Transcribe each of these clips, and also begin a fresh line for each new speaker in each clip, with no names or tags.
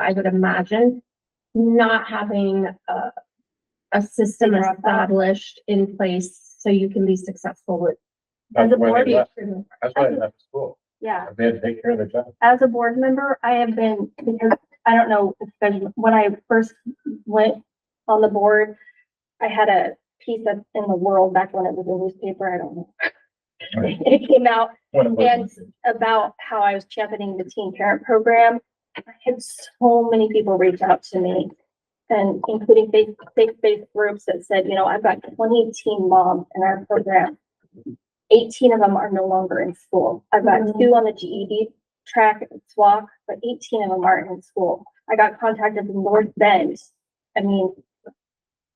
I would imagine, not having a, a system
Figure out that.
established in place so you can be successful with.
As
That's
a
why
board,
they left,
improvement.
that's why they left school,
Yeah,
they had to take care of their job.
as a board member, I have been, because I don't know, if there's- when I first went on the board, I had a piece up in the world back when it was a newspaper, I don't know. It came out
When it
and
was-
about how I was championing the teen parent program. I had so many people reach out to me and including faith, faith-based groups that said, you know, I've got twenty teen moms in our program. Eighteen of them are no longer in school. I've got
Mhm.
two on the GED track at SWAC, but eighteen of them aren't in school. I got contacted in North Bend. I mean,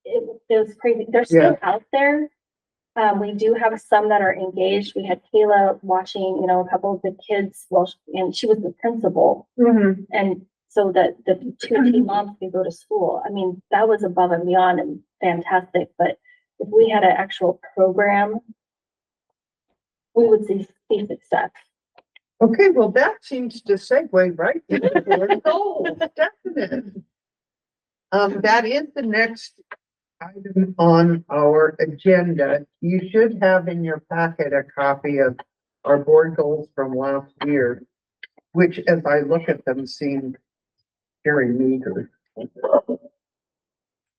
it, it was crazy. They're still out there. Um, we do have some that are engaged. We had Kayla watching, you know, a couple of the kids, well, she- and she was the principal.
Mhm.
And so that the two teen moms could go to school. I mean, that was above and beyond and fantastic, but if we had an actual program, we would see, see success.
Okay, well, that seems to segue right into board goals, definite. Um, that is the next item on our agenda. You should have in your packet a copy of our board goals from last year, which as I look at them seem very meager.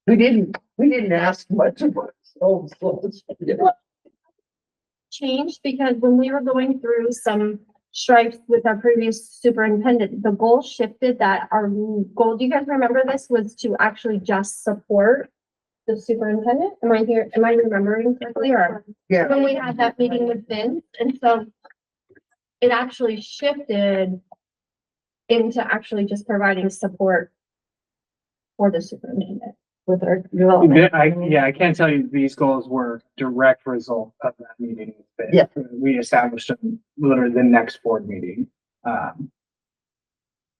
We didn't, we didn't ask much about goals last year.
Changed because when we were going through some stripes with our previous superintendent, the goal shifted that our goal, do you guys remember this, was to actually just support the superintendent? Am I here, am I remembering correctly or?
Yeah.
when we had that meeting with Vince, and so it actually shifted into actually just providing support for the superintendent with our development.
Yeah, I, yeah, I can't tell you these goals were direct result of that meeting. but
Yeah.
We established them literally the next board meeting. Um,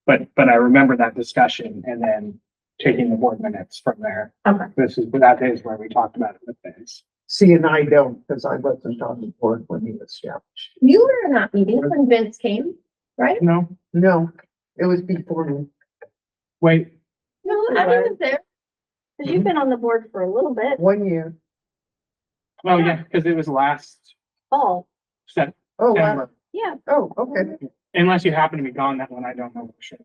But, but I remember that discussion and then taking the board minutes from there.
Okay.
This is, that is where we talked about it with things.
See, and I don't, because I wasn't on the board when he was established.
You were in that meeting when Vince came, right?
No,
No, it was before me.
wait,
No, I was there.
Cause you've been on the board for a little bit,
one year.
oh yeah, because it was last
Paul.
September.
Oh, wow.
Yeah.
Oh, okay.
Unless you happen to be gone that one, I don't know for sure.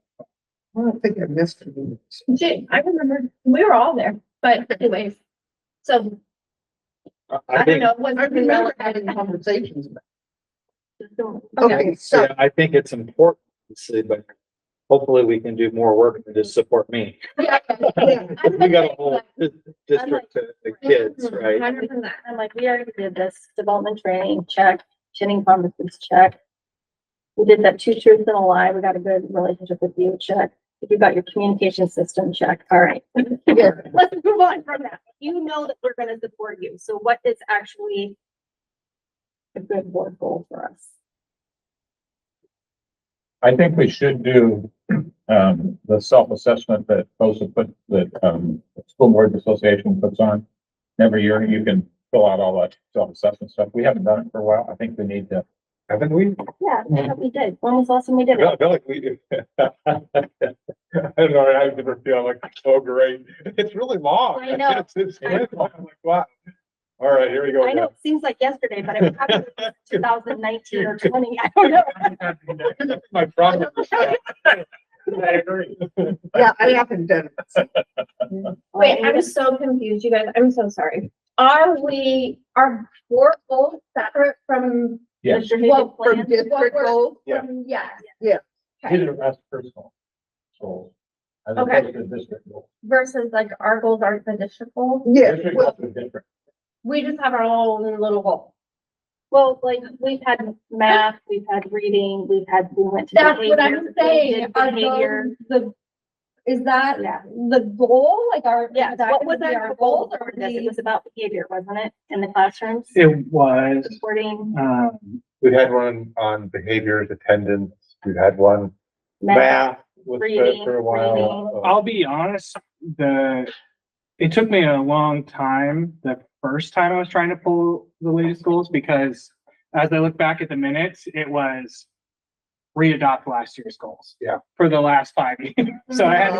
I don't think I missed it.
Jay, I remember, we were all there, but anyways, so I don't
think-
know. was
I
it
remember
relevant?
having conversations. about it.
Okay.
Okay, so,
Yeah, I think it's important, obviously, but hopefully we can do more work than just support me.
Yeah,
yeah,
I'm
We got a
like-
whole di- district of of kids, right?
100%.
I'm like, we already did this development training check, chinning conferences check. We did that two truths and a lie. We got a good relationship with you check. You got your communication system check. All right.
yeah.
Let's move on from that. You know that we're gonna support you. So what is actually a good board goal for us?
I think we should do, um, the self-assessment that those have put, that, um, the School Board Association puts on. Every year, you can fill out all that self-assessment stuff, we haven't done it for a while, I think we need to.
Haven't we?
Yeah, I thought we did. When was the last time we did it?
I feel like we do. I don't know, I never feel like, oh, great, it's really long.
I know.
It's- it's-
I know.
it's long, like, wow. All right, here we go.
I know,
again.
it seems like yesterday, but it probably was two thousand nineteen or twenty. I don't know.
My problem. I agree.
Yeah, I haven't done it.
Wait, I'm so confused, you guys. I'm so sorry. Are we, are board goals separate from,
Yes.
Well,
Strategic
for
plan.
district goals,
Yeah.
from, um, yes?
Yeah.
These are us personal goals. As
Okay.
opposed to district goals.
Versus like our goals aren't the district goals?
yeah,
District
well,
goals are different.
We just have our own little goal.
Well, like, we've had math, we've had reading, we've had, we went to.
That's what
behavior,
I'm
we
saying.
did
Are
behavior.
those the, is that
Yeah.
the goal? Like our, is
Yeah,
that
what was
gonna be
our goal
or
for
are
this? It
we-
was about behavior, wasn't it, in the classrooms?
It was,
Supporting
um,
We had one on behaviors, attendance, we've had one
math.
math was
reading,
for for a
reading.
Oh,
while.
I'll be honest, the, it took me a long time, the first time I was trying to pull the latest goals, because as I look back at the minutes, it was re-adopt last year's goals.
Yeah.
For the last five years. So I had to